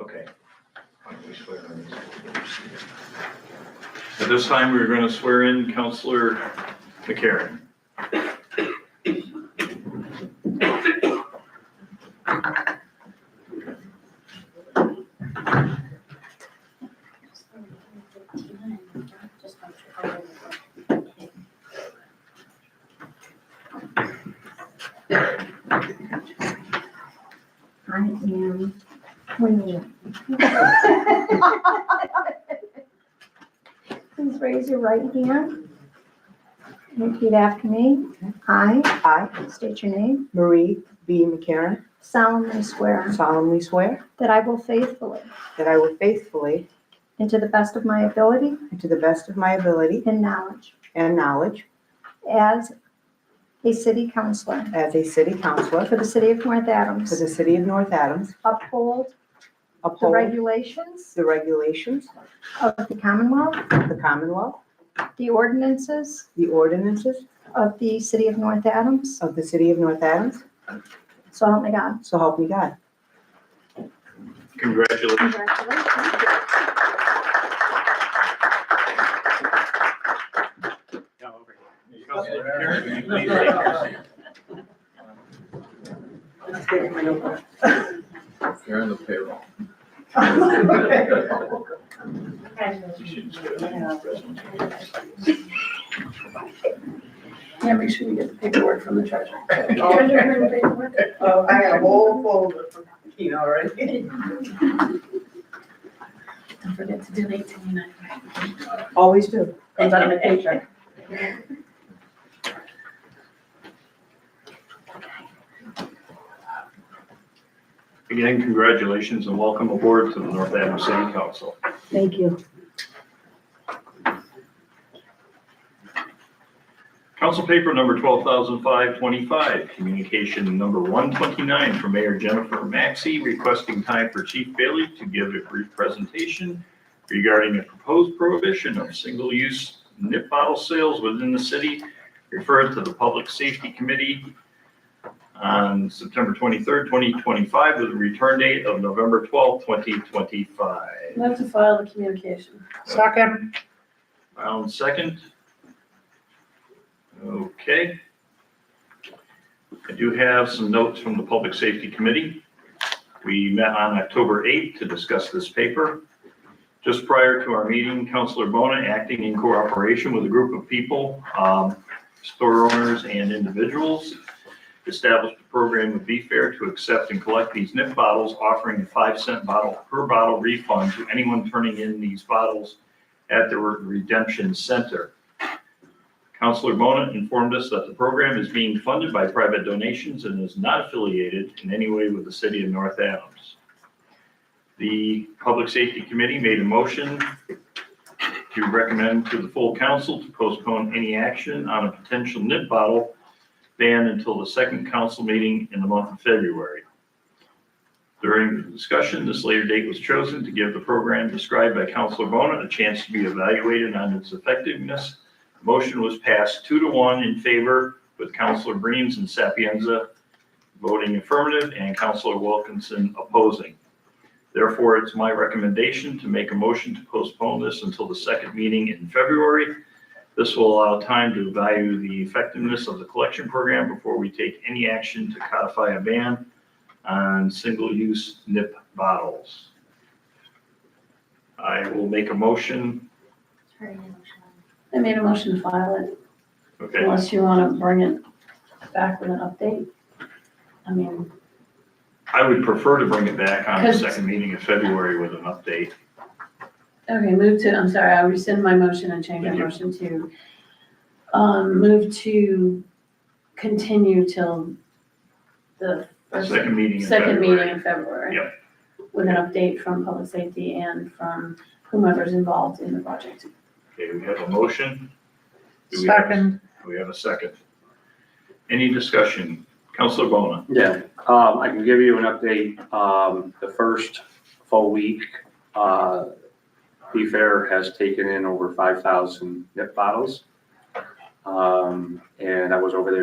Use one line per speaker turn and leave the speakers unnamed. Okay. Why don't we swear on these?
At this time, we're going to swear in Counselor McCarron.
I am, Renee. Please raise your right hand. Repeat after me. I
I,
state your name.
Marie B. McCarron,
solemnly swear
solemnly swear
that I will faithfully
that I will faithfully,
and to the best of my ability
and to the best of my ability
and knowledge,
and knowledge,
as a city councillor
as a city councillor
for the city of North
for
Adams,
the city of North Adams,
uphold the
uphold
regulations
the regulations
of the Commonwealth,
of the Commonwealth,
the ordinances
the ordinances
of the city of North Adams,
of the city of North Adams,
so help me God.
so help me God.
Congratulations.
Congratulations.
Counselor McCarron, please raise your hand.
You're on the payroll. You should just get a presentation.
Yeah, make sure you get the paperwork from the treasurer.
Oh, I got a whole folder from Keen already.
Don't forget to donate to me.
Always do.
Comes out of my paycheck.
Again, congratulations and welcome aboard to the North Adams City Council.
Thank you.
Council paper number 12,525, communication number 129 from Mayor Jennifer Maxey requesting time for Chief Bailey to give a brief presentation regarding a proposed prohibition of single-use nip bottle sales within the city, referred to the Public Safety Committee on September 23rd, 2025, with a return date of November 12th, 2025.
Move to file the communication.
Second.
Round second. Okay. I do have some notes from the Public Safety Committee. We met on October 8th to discuss this paper. Just prior to our meeting, Counselor Bona, acting in cooperation with a group of people, um, store owners and individuals, established a program with Be Fair to accept and collect these nip bottles, offering a five cent bottle per bottle refund to anyone turning in these bottles at the Redemption Center. Counselor Bona informed us that the program is being funded by private donations and is not affiliated in any way with the city of North Adams. The Public Safety Committee made a motion to recommend to the full council to postpone any action on a potential nip bottle ban until the second council meeting in the month of February. During the discussion, this later date was chosen to give the program described by Counselor Bona a chance to be evaluated on its effectiveness. The Motion was passed two to one in favor with Counselor Breams and Sapienza voting affirmative and Counselor Wilkinson opposing. Therefore, it's my recommendation to make a motion to postpone this until the second meeting in February. This will allow time to value the effectiveness of the collection program before we take any action to codify a ban on single-use nip bottles. I will make a motion,
I made a motion to file it
okay,
unless you want to bring it back with an update. I mean,
I would prefer to bring it back on the
Because-
second meeting in February with an update.
okay, move to, I'm sorry, I rescind my motion and change my
Thank you.
motion to, um, move to continue till the
The
first-
Second meeting in
second meeting
February.
in February.
Yep.
With an update from public safety and from whomever's involved in the project.
Okay, we have a motion. Do we have a- do We have a second. Any discussion? Counselor Bona,
Yeah, um, I can give you an update. Um, the first full week, uh, Be Fair has taken in over five thousand nip bottles. Um, and I was over there